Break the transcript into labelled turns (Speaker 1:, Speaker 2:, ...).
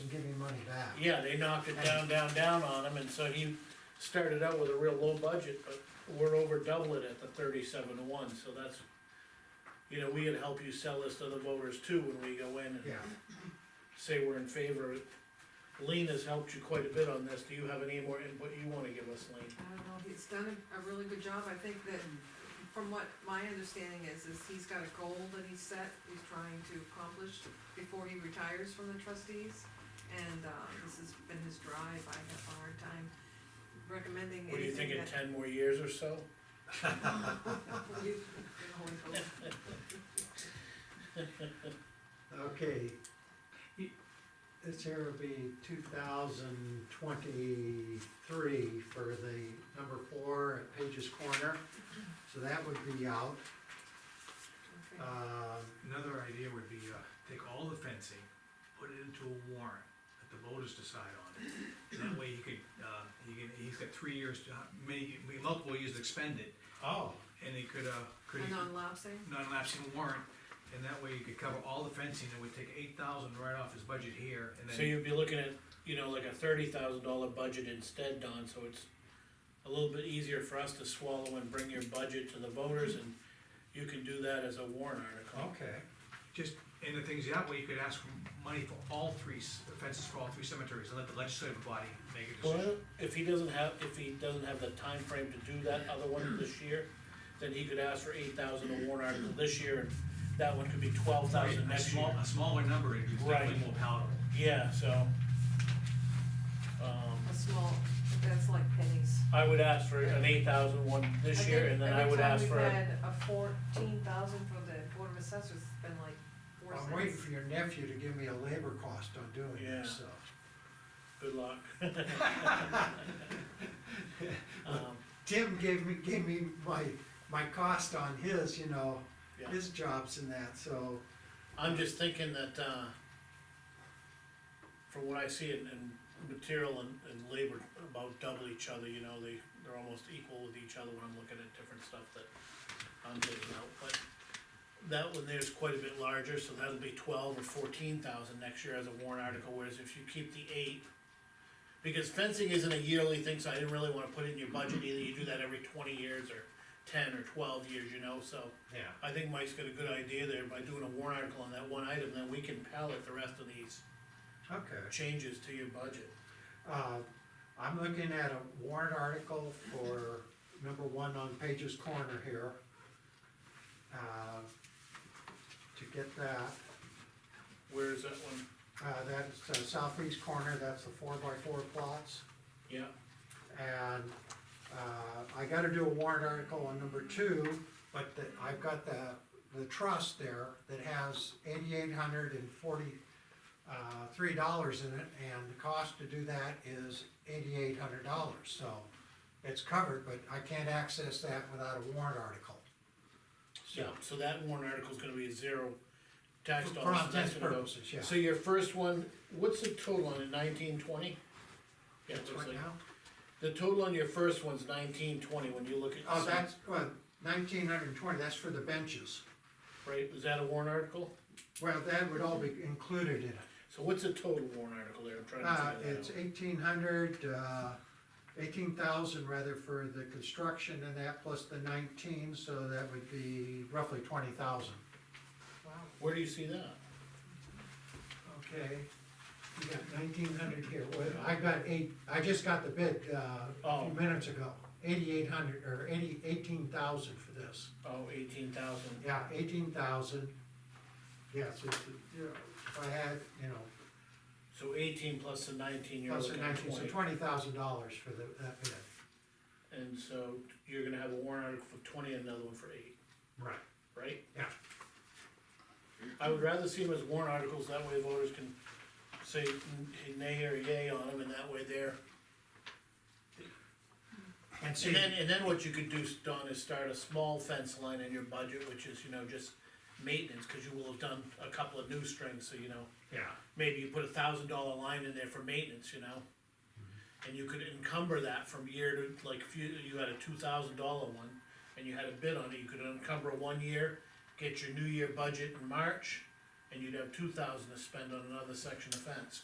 Speaker 1: money back.
Speaker 2: yeah, they knocked it down, down, down on him, and so he started out with a real low budget, but we're over double it at the thirty-seven to one, so that's. You know, we can help you sell this to the voters too when we go in and
Speaker 1: Yeah,
Speaker 2: say we're in favor. of it. Lean has helped you quite a bit on this, do you have any more input you wanna give us, Lean?
Speaker 3: I don't know, he's done a- a really good job, I think that, from what my understanding is, is he's got a goal that he's set, he's trying to accomplish before he retires from the trustees, and, uh, this has been his drive, I have a hard time recommending
Speaker 2: What do you
Speaker 3: anything
Speaker 2: think, in
Speaker 3: that.
Speaker 2: ten more years or so?
Speaker 3: You can always hope.
Speaker 1: okay. This here will be two thousand twenty-three for the number four at Page's Corner, so that would be out.
Speaker 3: Okay.
Speaker 1: Um,
Speaker 4: Another idea would be, uh, take all the fencing, put it into a warrant, that the voters decide on it. That way he could, uh, he can, he's got three years, to many, multiple years to expend it,
Speaker 1: Oh,
Speaker 4: and he could, uh, could.
Speaker 3: A non-lapsing,
Speaker 4: non-lapsing warrant, and that way you could cover all the fencing, and we'd take eight thousand right off his budget here, and
Speaker 2: So
Speaker 4: then.
Speaker 2: you'd be looking at, you know, like a thirty thousand dollar budget instead, Don, so it's a little bit easier for us to swallow and bring your budget to the voters, and you can do that as a warrant article.
Speaker 4: Okay. Just, and the things, that way you could ask for money for all three s- fences for all three cemeteries, and let the legislative body make a decision.
Speaker 2: Well, if he doesn't have, if he doesn't have the time frame to do that other one this year, then he could ask for eight thousand a warrant article this year, and that one could be twelve thousand
Speaker 4: A
Speaker 2: next
Speaker 4: small,
Speaker 2: year.
Speaker 4: a smaller number, it's definitely
Speaker 2: Right.
Speaker 4: more palatable.
Speaker 2: Yeah, so. Um,
Speaker 3: a small, that's like pennies.
Speaker 2: I would ask for an eight thousand one this year, and then I would ask for,
Speaker 3: Every time
Speaker 2: a-
Speaker 3: we've had a fourteen thousand for the board of assessors, it's been like four cents.
Speaker 1: I'm waiting for your nephew to give me a labor cost on doing
Speaker 2: Yeah.
Speaker 1: this, so.
Speaker 2: good luck. Um,
Speaker 1: Tim gave me, gave me my, my cost on his, you know,
Speaker 2: Yeah.
Speaker 1: his jobs and that, so,
Speaker 2: I'm just thinking that, uh, from what I see in, in material and, and labor about double each other, you know, they, they're almost equal with each other when I'm looking at different stuff that I'm digging out, but that one there's quite a bit larger, so that'll be twelve or fourteen thousand next year as a warrant article, whereas if you keep the eight, because fencing isn't a yearly thing, so I didn't really wanna put it in your budget either, you do that every twenty years or ten or twelve years, you know, so.
Speaker 4: Yeah.
Speaker 2: I think Mike's got a good idea there, by doing a warrant article on that one item, then we can pallet the rest of these
Speaker 1: okay.
Speaker 2: changes to your budget.
Speaker 1: Uh, I'm looking at a warrant article for number one on Page's Corner here. uh, To get that,
Speaker 2: Where is that one?
Speaker 1: uh, that's uh, southeast corner, that's the four by four plots.
Speaker 2: Yeah,
Speaker 1: And, uh, I gotta do a warrant article on number two, but the- I've got the, the trust there that has eighty-eight hundred and forty, uh, three dollars in it, and the cost to do that is eighty-eight hundred dollars, so it's covered, but I can't access that without a warrant article.
Speaker 2: yeah, so that warrant article's gonna be a zero tax
Speaker 1: For
Speaker 2: dollars. so that's
Speaker 1: content
Speaker 2: gonna go-
Speaker 1: purposes, yeah.
Speaker 2: So your first one, what's the total on it, nineteen twenty? Yeah, it
Speaker 1: That's
Speaker 2: looks
Speaker 1: what
Speaker 2: like,
Speaker 1: now?
Speaker 2: the total on your first one's nineteen twenty, when you look at.
Speaker 1: Oh,
Speaker 2: some-
Speaker 1: that's, well, nineteen hundred and twenty, that's for the benches.
Speaker 2: Right, is that a warrant article?
Speaker 1: Well, that would all be included in it.
Speaker 2: So what's the total warrant article there, I'm trying
Speaker 1: Uh,
Speaker 2: to figure that out.
Speaker 1: it's eighteen hundred, uh, eighteen thousand rather for the construction and that, plus the nineteen, so that would be roughly twenty thousand.
Speaker 3: Wow.
Speaker 2: Where do you see that?
Speaker 1: Okay, you got nineteen hundred here, Well, I got eight, I just got the bid, uh, a
Speaker 2: Oh.
Speaker 1: few minutes ago. Eighty-eight hundred, or eighty, eighteen thousand for this,
Speaker 2: Oh, eighteen thousand,
Speaker 1: yeah, eighteen thousand. Yeah, so, it's, you know, if I had, you know,
Speaker 2: so eighteen plus the nineteen, you're
Speaker 1: plus the
Speaker 2: looking at
Speaker 1: nineteen, so
Speaker 2: twenty.
Speaker 1: twenty thousand dollars for the, that bid.
Speaker 2: And so you're gonna have a warrant article for twenty and another one for eight,
Speaker 1: Right.
Speaker 2: right?
Speaker 1: Yeah.
Speaker 2: I would rather see them as warrant articles, that way voters can say n- nay or yay on them, and that way they're.
Speaker 1: And
Speaker 2: And
Speaker 1: see,
Speaker 2: then, and then what you could do, Don, is start a small fence line in your budget, which is, you know, just maintenance, cause you will have done a couple of new strings, so you know.
Speaker 4: Yeah.
Speaker 2: Maybe you put a thousand dollar line in there for maintenance, you know? And you could encumber that from year to, like, if you, you had a two thousand dollar one, and you had a bid on it, you could encumber one year, get your new year budget in March, and you'd have two thousand to spend on another section of fence.